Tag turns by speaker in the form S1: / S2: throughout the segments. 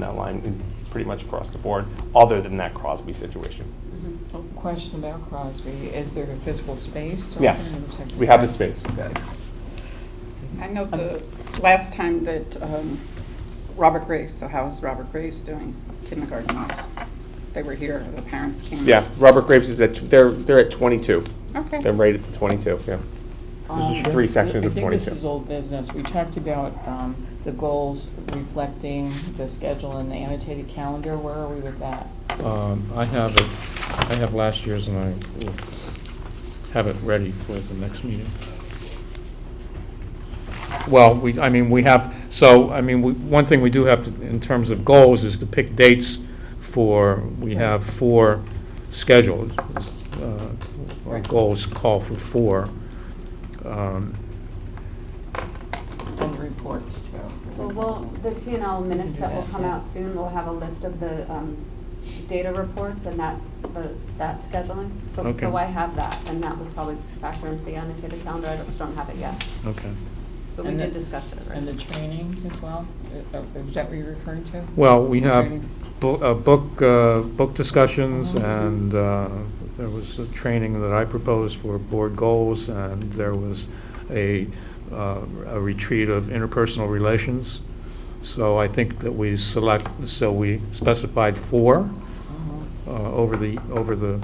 S1: that line pretty much across the board, other than that Crosby situation.
S2: A Question about Crosby, is there a physical space? or
S1: Yes,
S2: something? It looks like-
S1: we have the space.
S3: I know the last time that um, Robert Grace, so how is Robert Grace doing kindergarten-wise? They were here, the parents came.
S1: Yeah, Robert Graves is at, tw- they're, they're at 22.
S3: Okay.
S1: They're right at the 22, yeah.
S2: Um,
S1: three sections of
S2: I think this
S1: 22.
S2: is old business. We talked about um, the goals reflecting the schedule and the annotated calendar. Where are we with that?
S4: Um, I have it, I have last year's and I will have it ready for the next meeting. Well, we, I mean, we have, so, I mean, we- one thing we do have to- in terms of goals is to pick dates for, we have four scheduled. uh, Our
S2: Right.
S4: goals call for four. Um,
S2: And the reports, Joe?
S5: Well, Well, the T and L minutes that will come out soon, will have a list of the um, data reports, and that's the, that scheduling. So,
S4: Okay.
S5: so I have that, and that would probably factor into the annotated calendar, I just don't have it yet.
S4: Okay.
S5: But we
S2: And
S5: did
S2: the-
S5: discuss it
S2: And the
S5: already.
S2: training as well? Uh, uh, Is that what you're referring to?
S4: Well, we have
S2: Trainings.
S4: bo- uh, book, uh, book discussions,
S2: Mhm.
S4: and uh, there was a training that I proposed for board goals, and there was a uh, a retreat of interpersonal relations. So I think that we select, so we specified four
S2: Mhm.
S4: uh, over the, over the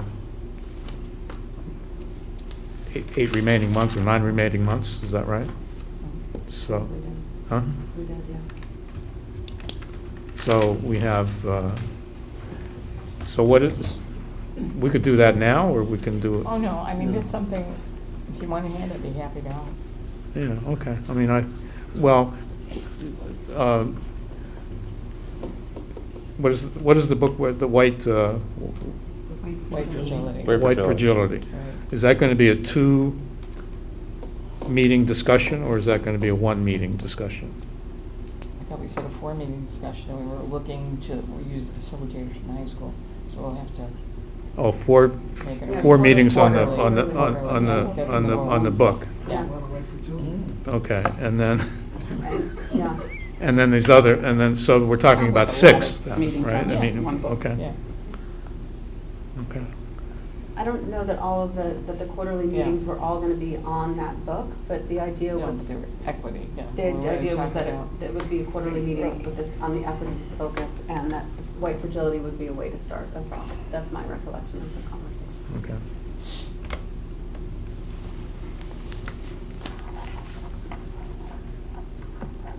S4: eight- eight remaining months or nine remaining months, is that right? So,
S5: We did,
S4: huh?
S5: we did, yes.
S4: So we have, uh, so what is, we could do that now, or we can do it?
S2: Oh, no, I mean, it's something, if you want to hand it, be happy to help.
S4: Yeah, okay, I mean, I, well, uh, what is, what is the book, with the white, uh,
S2: Wait for Jolene.
S1: Wait for-
S4: white
S1: Fragility.
S4: fragility?
S2: Right.
S4: Is that going to be a two-meeting discussion, or is that going to be a one-meeting discussion?
S2: I thought we said a four-meeting discussion, and we were looking to use the facilitator from high school, so we'll have to
S4: Oh, four,
S2: Make it a-
S4: four meetings on the, on the, on
S2: Quarterly.
S4: on the, on the, on the book?
S5: Yes,
S4: Okay, and then,
S5: yeah.
S4: And then there's other, and then, so we're talking about
S3: Sounds like a lot
S4: six,
S3: of
S4: then,
S3: meetings
S4: right?
S3: on
S4: I mean,
S3: one book.
S4: Okay,
S2: Yeah.
S4: okay.
S5: I don't know that all of the, that the quarterly
S2: Yeah.
S5: meetings were all gonna be on that book, but the idea
S2: No,
S5: was,
S2: but they're equity, yeah.
S5: the
S2: We're already
S5: idea was that
S2: talking
S5: it
S2: about-
S5: that it would be quarterly meetings with this, on the equity focus, and that white fragility would be a way to start us off. That's my recollection of the conversation.
S4: Okay.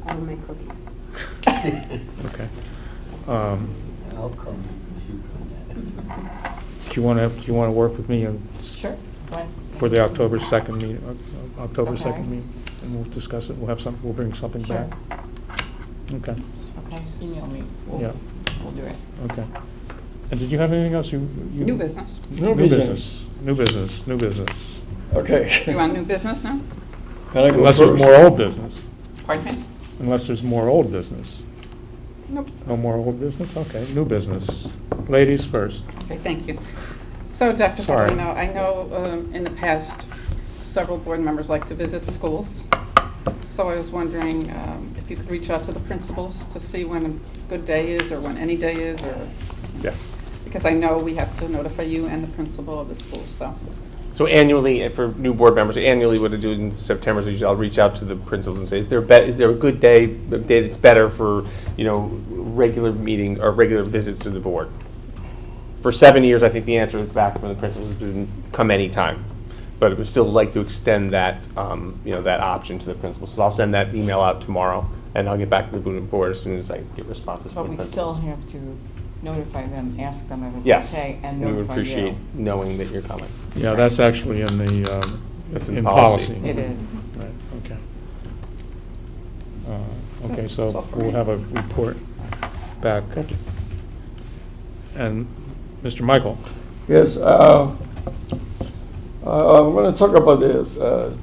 S5: I will make cookies.
S4: Okay. Um,
S6: I'll come if you come.
S4: Do you want to, do you want to work with me on s-
S2: Sure. fine.
S4: for the October 2nd meeting, Oc- October
S2: Okay.
S4: 2nd meeting? And we'll discuss it, we'll have some, we'll bring something
S2: Sure.
S4: back. Okay,
S2: Okay, just email me. We'll-
S4: Yeah.
S2: We'll do it.
S4: okay. And did you have anything else you? you-
S3: New business.
S4: New business, new business, new business.
S6: Okay.
S3: You want new business now?
S6: Can I go
S4: Unless there's
S6: first?
S4: more old business,
S3: Pardon me?
S4: unless there's more old business.
S3: Nope.
S4: No more old business, okay, new business. Ladies first.
S3: Okay, thank you. So Dr.
S4: Sorry.
S3: Favorino, I know um, in the past, several board members like to visit schools. So I was wondering um, if you could reach out to the principals to see when a good day is or when any day is or,
S1: Yes.
S3: because I know we have to notify you and the principal of the school, so.
S1: So annually, and for new board members, annually, what I do in September is usually I'll reach out to the principals and say, is there a bet, is there a good day, a day that's better for, you know, regular meeting or regular visits to the board? For seven years, I think the answer back from the principals has been, come anytime. But I would still like to extend that, um, you know, that option to the principals. So I'll send that email out tomorrow, and I'll get back to the board as soon as I get responses from
S2: But
S1: the
S2: we
S1: principals.
S2: still have to notify them, ask them if it's
S1: Yes.
S2: okay, and
S1: We would
S2: notify you.
S1: appreciate knowing that you're coming.
S4: Yeah, that's actually in the, um,
S1: That's in
S4: in
S1: policy.
S4: policy.
S2: It is.
S4: Right, okay. Uh, Okay,
S3: That's all
S4: so
S3: for
S4: we'll
S3: me.
S4: have a report back. And Mr. Michael?
S6: Yes, uh, uh, I'm going to talk about the uh,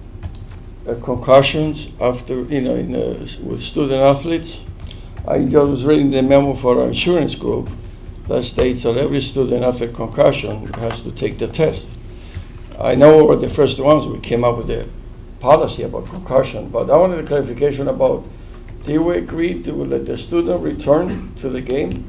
S6: the concussions after, you know, in, uh, s- with student athletes. I just was reading the memo for our insurance group that states that every student after concussion has to take the test. I know we're the first ones, we came up with a policy about concussion, but I wanted a clarification about They were agreed to let the student return to the game